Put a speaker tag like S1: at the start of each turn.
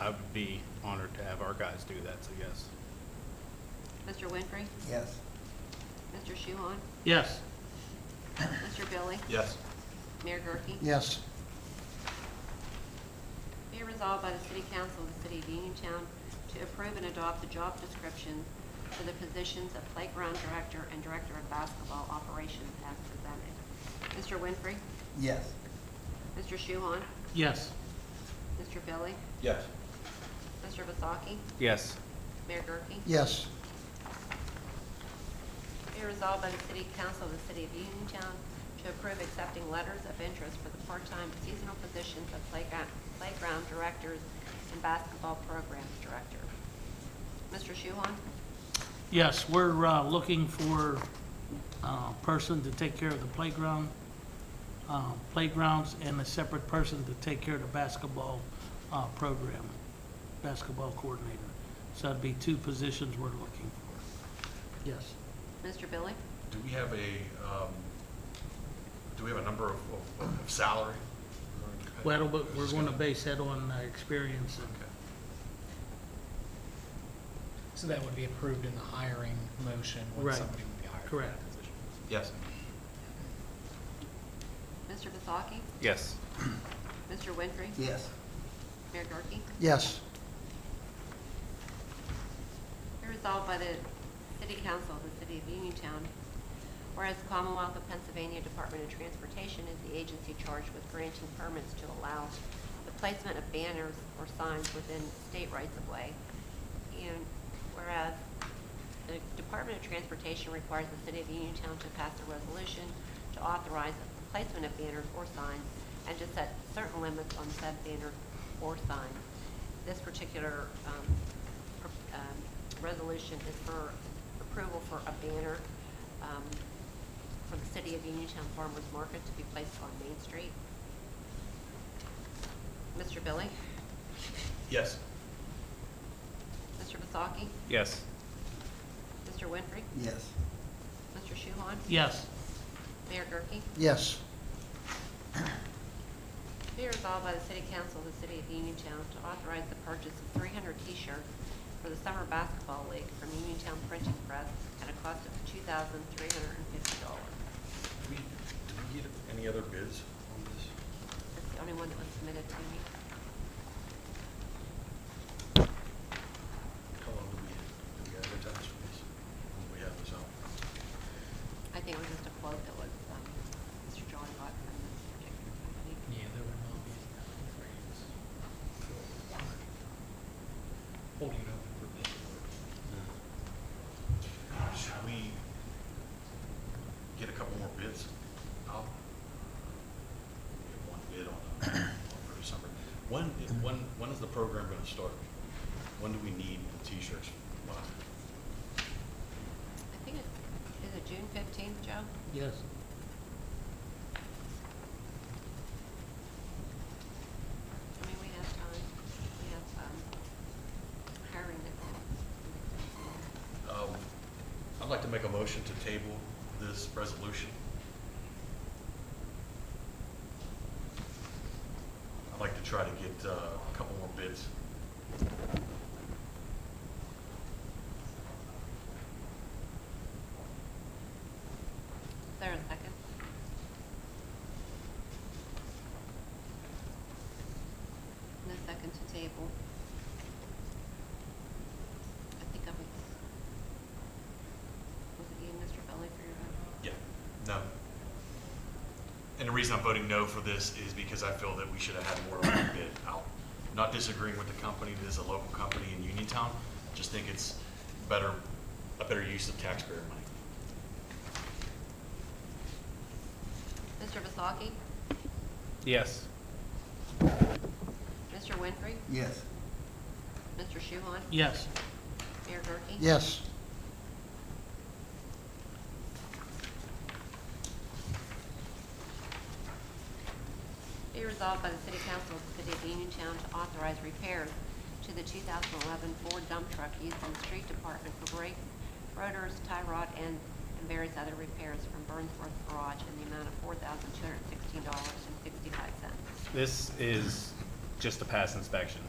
S1: I would be honored to have our guys do that, so yes.
S2: Mr. Winfrey?
S3: Yes.
S2: Mr. Shuhon?
S4: Yes.
S2: Mr. Billy?
S1: Yes.
S2: Mayor Gurke?
S3: Yes.
S2: Be it resolved by the City Council of the City of Uniontown to approve and adopt the job descriptions for the positions of Playground Director and Director of Basketball Operations as presented. Mr. Winfrey?
S3: Yes.
S2: Mr. Shuhon?
S4: Yes.
S2: Mr. Billy?
S1: Yes.
S2: Mr. Vasaki?
S1: Yes.
S2: Mayor Gurke?
S3: Yes.
S2: Be resolved by the City Council of the City of Uniontown to approve accepting letters of interest for the part-time seasonal positions of playground, playground directors and basketball programs director. Mr. Shuhon?
S4: Yes, we're uh, looking for a person to take care of the playground, uh, playgrounds, and a separate person to take care of the basketball uh, program, basketball coordinator. So that'd be two positions we're looking for. Yes.
S2: Mr. Billy?
S5: Do we have a, um, do we have a number of, of- of of salary?
S4: Well, but we're going to base that on uh, experience and
S5: Okay.
S6: So that would be approved in the hiring motion when
S4: Right.
S6: somebody would be hired for
S4: Correct.
S6: that position.
S5: Yes.
S2: Mr. Vasaki?
S1: Yes.
S2: Mr. Winfrey?
S3: Yes.
S2: Mayor Gurke?
S3: Yes.
S2: Be resolved by the City Council of the City of Uniontown, whereas the Commonwealth of Pennsylvania Department of Transportation is the agency charged with granting permits to allow the placement of banners or signs within state rights-of-way, and whereas the Department of Transportation requires the City of Uniontown to pass a resolution to authorize the placement of banners or signs and to set certain limits on said banner or sign. This particular um, pr- um, resolution is for approval for a banner um, for the City of Uniontown Farmers Market to be placed on Main Street. Mr. Billy?
S5: Yes.
S2: Mr. Vasaki?
S1: Yes.
S2: Mr. Winfrey?
S3: Yes.
S2: Mr. Shuhon?
S4: Yes.
S2: Mayor Gurke?
S3: Yes.
S2: Be resolved by the City Council of the City of Uniontown to authorize the purchase of 300 T-shirts for the Summer Basketball League from Uniontown Printing Press at a cost of $2,350.
S5: Do we, do we get any other bids on this?
S2: That's the only one that was submitted to me.
S5: How long do we, do we advertise for this? When we have this out?
S2: I think it was just a quote that was, um, Mr. John got from this particular company.
S6: Yeah, there would not be any raise. Holding it open for bid.
S5: Should we get a couple more bids out? Get one bid on, on for December. When, when, when is the program gonna start? When do we need the t-shirts? Wow.
S2: I think it, is it June fifteenth, Joe?
S4: Yes.
S2: I mean, we have time, we have, um, hiring that.
S5: Um, I'd like to make a motion to table this resolution. I'd like to try to get uh, a couple more bids.
S2: Is there a second? No second to table. I think I was, was it you, Mr. Belli, for your uh, vote?
S5: Yeah. No. And the reason I'm voting no for this is because I feel that we should have had more of a bid out. Not disagreeing with the company, this is a local company in Uniontown, just think it's better, a better use of taxpayer money.
S2: Mr. Vasaki?
S1: Yes.
S2: Mr. Winfrey?
S3: Yes.
S2: Mr. Shuhon?
S4: Yes.
S2: Mayor Gurke?
S3: Yes.
S2: Be resolved by the City Council of the City of Uniontown to authorize repairs to the 2011 Ford dump truck used in the street department for brakes, rotors, tie rod, and and various other repairs from Burnsworth Garage in the amount of $4,216.65.
S1: This is just a pass inspection.